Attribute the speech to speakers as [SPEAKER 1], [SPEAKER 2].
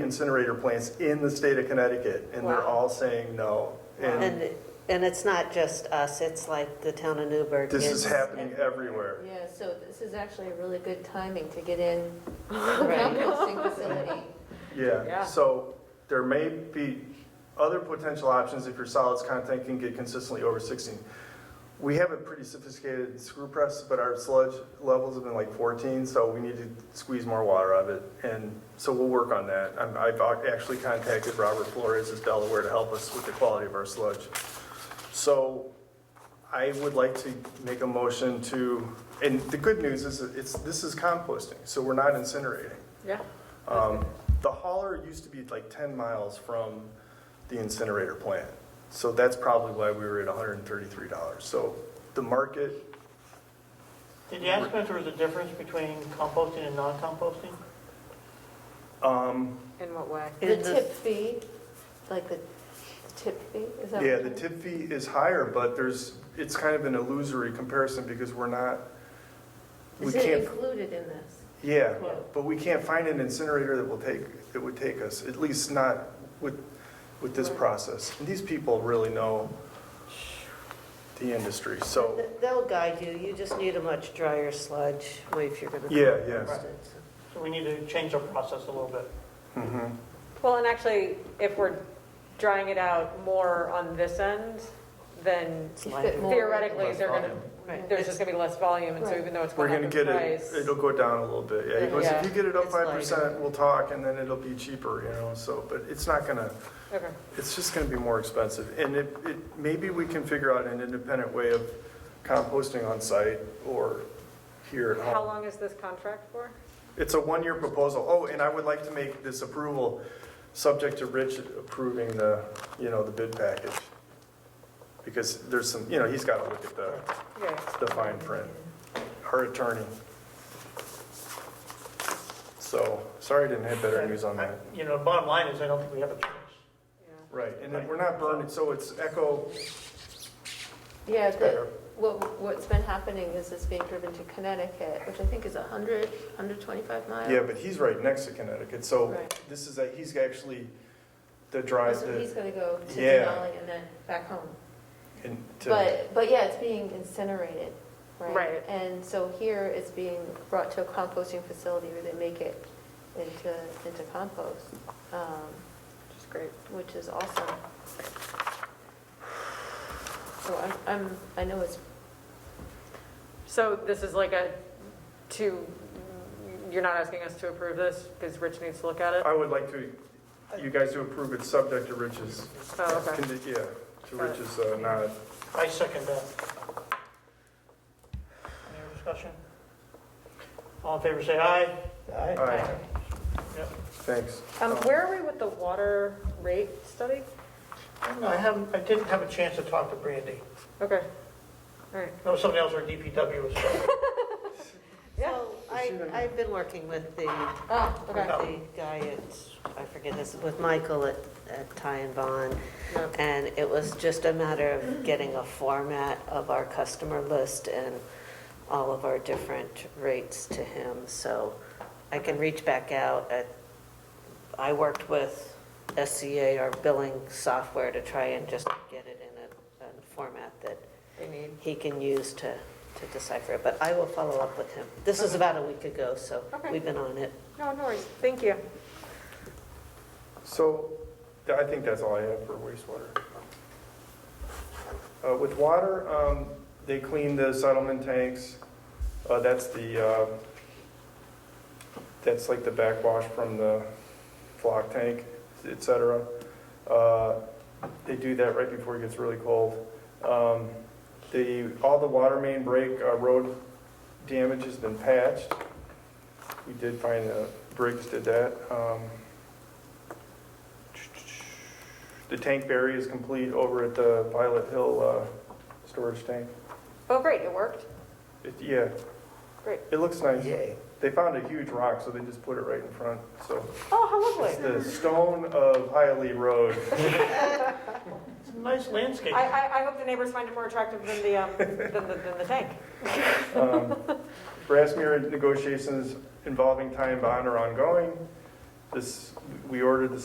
[SPEAKER 1] incinerator plants in the state of Connecticut, and they're
[SPEAKER 2] Wow.
[SPEAKER 1] all saying no. And
[SPEAKER 3] And, and it's not just us, it's like the town of Newburgh.
[SPEAKER 1] this is
[SPEAKER 3] It's-
[SPEAKER 1] happening everywhere.
[SPEAKER 2] Yeah, so this is actually a really good timing to get in a
[SPEAKER 3] Right.
[SPEAKER 2] composting facility.
[SPEAKER 1] Yeah,
[SPEAKER 2] Yeah.
[SPEAKER 1] so there may be other potential options if your solids content can get consistently over 16. We have a pretty sophisticated screw press, but our sludge levels have been like 14, so we need to squeeze more water out of it. And so we'll work on that. I'm- I've ac- actually contacted Robert Flores of Delaware to help us with the quality of our sludge. So I would like to make a motion to, and the good news is that it's, this is composting, so we're not incinerating.
[SPEAKER 2] Yeah.
[SPEAKER 1] Um, The hauler used to be like 10 miles from the incinerator plant, so that's probably why we were at $133. So the market,
[SPEAKER 4] Did you ask if there was a difference between composting and non-composting?
[SPEAKER 1] um,
[SPEAKER 5] In what way?
[SPEAKER 2] The
[SPEAKER 3] In the-
[SPEAKER 2] tip fee, like the the tip fee, is that?
[SPEAKER 1] yeah,
[SPEAKER 2] what
[SPEAKER 1] the
[SPEAKER 2] it is?
[SPEAKER 1] tip fee is higher, but there's, it's kind of an illusory comparison because we're not, we
[SPEAKER 2] Is it
[SPEAKER 1] can't,
[SPEAKER 2] included in this?
[SPEAKER 1] yeah,
[SPEAKER 2] quote?
[SPEAKER 1] but we can't find an incinerator that will take, that would take us, at least not with, with this
[SPEAKER 2] Right.
[SPEAKER 1] process. And these people really know the industry, so,
[SPEAKER 3] Th- They'll guide you, you just need a much drier sludge if you're gonna.
[SPEAKER 1] yeah, yeah.
[SPEAKER 3] compost it, so.
[SPEAKER 4] So we need to change our process a little bit.
[SPEAKER 1] Mhm.
[SPEAKER 5] Well, and actually, if we're drying it out more on this end, then
[SPEAKER 3] It's
[SPEAKER 2] Keep
[SPEAKER 3] lighter.
[SPEAKER 2] it more-
[SPEAKER 5] theoretically,
[SPEAKER 1] Less
[SPEAKER 5] they're gonna,
[SPEAKER 1] volume.
[SPEAKER 3] Right.
[SPEAKER 5] there's just gonna be less volume, and so
[SPEAKER 2] Right.
[SPEAKER 5] even though it's
[SPEAKER 1] We're
[SPEAKER 5] going up
[SPEAKER 1] gonna
[SPEAKER 5] in
[SPEAKER 1] get it,
[SPEAKER 5] price.
[SPEAKER 1] it'll go down a little bit, yeah, he goes, if
[SPEAKER 5] Yeah.
[SPEAKER 1] you get it up
[SPEAKER 3] It's like-
[SPEAKER 1] five percent, we'll talk, and then it'll be cheaper, you know, so, but it's not gonna,
[SPEAKER 5] Okay.
[SPEAKER 1] it's just gonna be more expensive, and it, it, maybe we can figure out an independent way of composting on site or here at
[SPEAKER 5] How
[SPEAKER 1] home.
[SPEAKER 5] long is this contract for?
[SPEAKER 1] It's a one-year proposal, oh, and I would like to make this approval, subject to Rich approving the, you know, the bid package. Because there's some, you know, he's gotta look at the,
[SPEAKER 5] Yeah.
[SPEAKER 1] the fine print, her attorney. So, sorry I didn't have better news on that.
[SPEAKER 4] You know, bottom line is, I don't think we have a choice.
[SPEAKER 5] Yeah.
[SPEAKER 1] Right, and then we're not burning, so it's echo,
[SPEAKER 2] Yeah,
[SPEAKER 1] better.
[SPEAKER 2] the, what, what's been happening is it's being driven to Connecticut, which I think is 100, 125 miles.
[SPEAKER 1] yeah, but he's right next to Connecticut, so
[SPEAKER 2] Right.
[SPEAKER 1] this is, a he's actually the drive
[SPEAKER 2] So he's
[SPEAKER 1] that,
[SPEAKER 2] gonna go to
[SPEAKER 1] Yeah.
[SPEAKER 2] Denali and then back home.
[SPEAKER 1] and to,
[SPEAKER 2] But, but yeah, it's being incinerated, right?
[SPEAKER 5] Right.
[SPEAKER 2] And so here it's being brought to a composting facility where they make it into, into compost, um,
[SPEAKER 5] Which is great.
[SPEAKER 2] which is awesome. So I'm, I'm, I know it's,
[SPEAKER 5] So this is like a, to, you're not asking us to approve this, because Rich needs to look at it?
[SPEAKER 1] I would like to, you guys to approve it, subject to Rich's,
[SPEAKER 5] Oh, okay.
[SPEAKER 1] condi- yeah, to Rich's uh, nod.
[SPEAKER 4] I second that. Any other discussion? All in favor, say aye.
[SPEAKER 1] All right, thanks.
[SPEAKER 5] Um, where are we with the water rate study?
[SPEAKER 4] No, I haven't, I didn't have a chance to talk to Brandy.
[SPEAKER 5] Okay, all right.
[SPEAKER 4] No, somebody else or DPW was.
[SPEAKER 5] Yeah.
[SPEAKER 3] So I, I've been working with the,
[SPEAKER 5] Oh,
[SPEAKER 3] with the guy at, I forget this, with Michael at, at Ty and Bond.
[SPEAKER 5] Yeah.
[SPEAKER 3] And it was just a matter of getting a format of our customer list and all of our different rates to him. So I can reach back out. at- I worked with SCA, our billing software, to try and just get it in a, a format that
[SPEAKER 5] They need.
[SPEAKER 3] he can use to, to decipher it. But I will follow up with him. This was about a week ago, so
[SPEAKER 5] Okay.
[SPEAKER 3] we've been on it.
[SPEAKER 5] No, no worries. Thank you.
[SPEAKER 1] So, th- I think that's all I have for wastewater. Uh, With water, um, they clean the settlement tanks. Uh, That's the, uh, that's like the backwash from the flock tank, et cetera. Uh, They do that right before it gets really cold. Um, The, all the water main break, uh, road damage has been patched. We did find, uh, Briggs did that. Um, The tank barrier is complete over at the Violet Hill uh, storage tank.
[SPEAKER 5] Oh, great, it worked.
[SPEAKER 1] It- Yeah.
[SPEAKER 5] Great.
[SPEAKER 1] It looks nice. They found a huge rock, so they just put it right in front, so.
[SPEAKER 5] Oh, how
[SPEAKER 1] It's
[SPEAKER 5] lovely.
[SPEAKER 1] the stone of Hialeah Road.
[SPEAKER 4] It's a nice landscape.
[SPEAKER 5] I, I, I hope the neighbors find it more attractive than the, um, than the, than the tank.
[SPEAKER 1] Um, Brassmere negotiations involving time bond are ongoing. This, we ordered the